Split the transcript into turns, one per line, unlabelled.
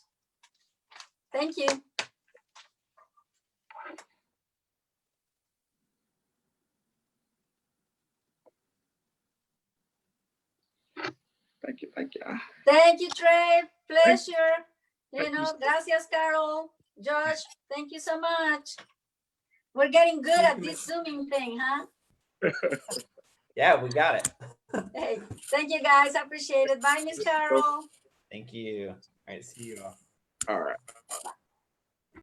Thank you.
Thank you, thank you.
Thank you, Trey. Pleasure. You know, gracias, Carol. Josh, thank you so much. We're getting good at this zooming thing, huh?
Yeah, we got it.
Hey, thank you, guys. Appreciate it. Bye, Miss Carol.
Thank you. All right, see you all.
All right.
Bye.